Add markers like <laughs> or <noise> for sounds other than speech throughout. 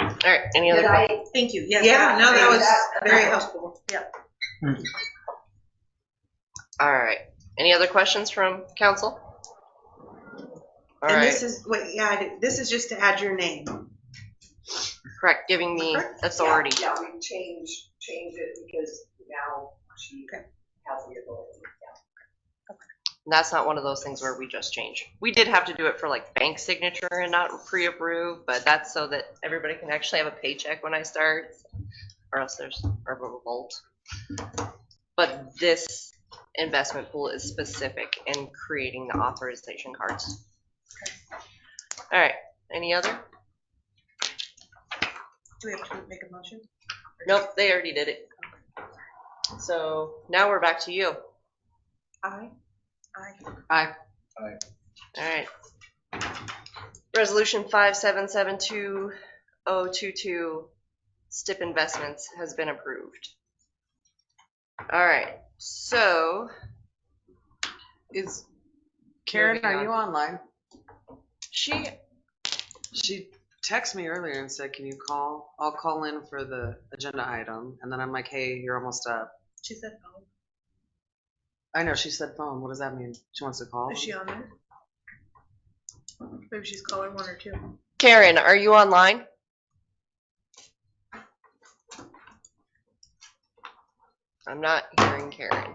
All right, any Did other questions? I, Thank you. Yes. Yeah, no, that was That- very helpful. All right, any other questions from council? All And right, this is, wait, yeah, I did- this is just to add your name. correct, giving me authority. Yeah, yeah, we changed, changed it because now she has the ability. And That's not one of those things where we just change. We did have to do it for like bank signature and not pre-approve, but that's so that everybody can actually have a paycheck when I start, or else there's a revolt. But this investment pool is specific in creating the authorization cards. All right, any other? Do we have to make a motion? Nope, they already did it. So now we're back to you. Aye. Aye. All right. Resolution five seven seven two oh two two, STIP Investments has been approved. All right, so Is Karen, Moving are you online? she, She texted me earlier and said, can you call? I'll call in for the agenda item. And then I'm like, hey, you're almost up. She said oh, no. I know, she said phone. What does that mean? She wants to call? Is she on there? Maybe she's caller one or two. Karen, are you online? I'm not hearing Karen.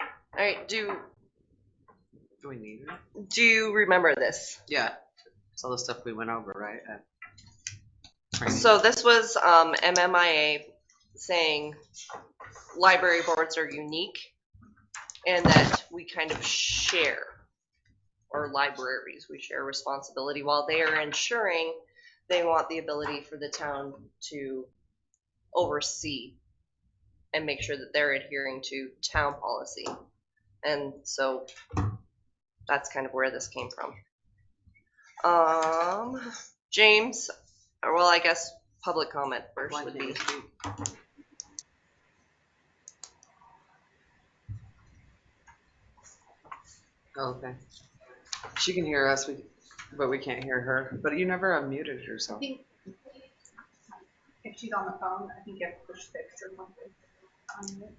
All right, do, Do we need her? do you remember this? Yeah. It's all the stuff we went over, right? at training. So this was um, MMIA saying library boards are unique and that we kind of share, or libraries, we share responsibility while they are ensuring they want the ability for the town to oversee and make sure that they're adhering to town policy. And so that's kind of where this came from. Um, James, or well, I guess public comment first would be. Oh, Okay. She can hear us, we- but we can't hear her. But you never unmuted I yourself. think if she's on the phone, I think you have to push fix or something.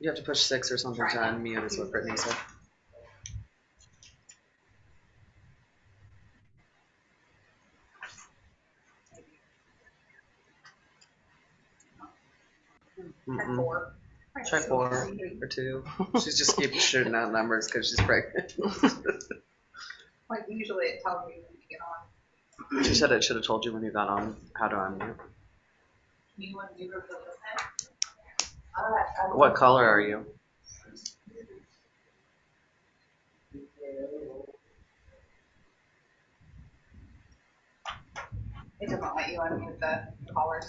You have to push six or something to Try. unmute is what Brittany said. Try Mm-hmm. Mm-mm, four. Try four. Or two. She's just keep shooting out numbers because she's pregnant. <laughs> Like usually it tells me when you get on. She said it should have told you when you got on how to unmute. You want to do her for the All right. I will- What color are you? It doesn't let you unmute the callers.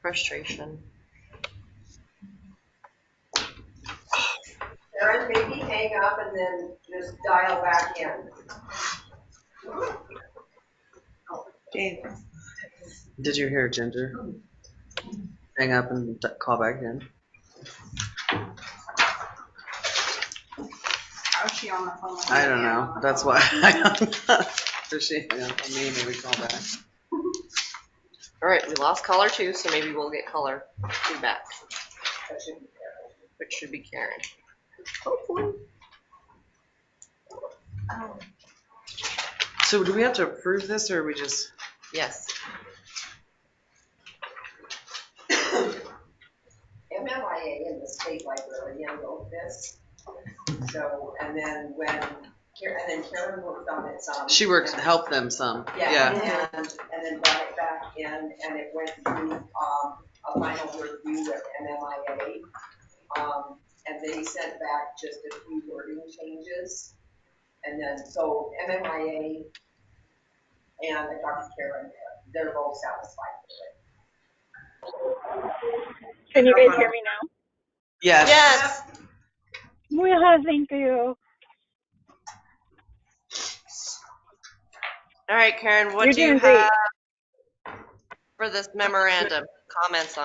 Frustration. Erin, maybe hang up and then just dial back in. Dave. Did you hear Ginger? Hang up and d- call back in. How is she on the phone? I don't know. That's why. <laughs> I don't know. So she hung up on me, maybe call back. All right, we lost caller two, so maybe we'll get caller two back, which should be Karen. So do we have to approve this or we just? Yes. MMIA in the state library handled this. So, and then when, Karen- and then Karen worked on it um, some. She works, help them some. Yeah. Yeah, and, and then brought it back in and it went through, um, a final review with MMIA. Um, and they sent back just a few wording changes. And then, so MMIA and Dr. Karen, they're both satisfied with it. Can you guys hear me now? Yes. Yeah, thank you. All right, Karen, what You're do you doing great. have for this memorandum? Comments on?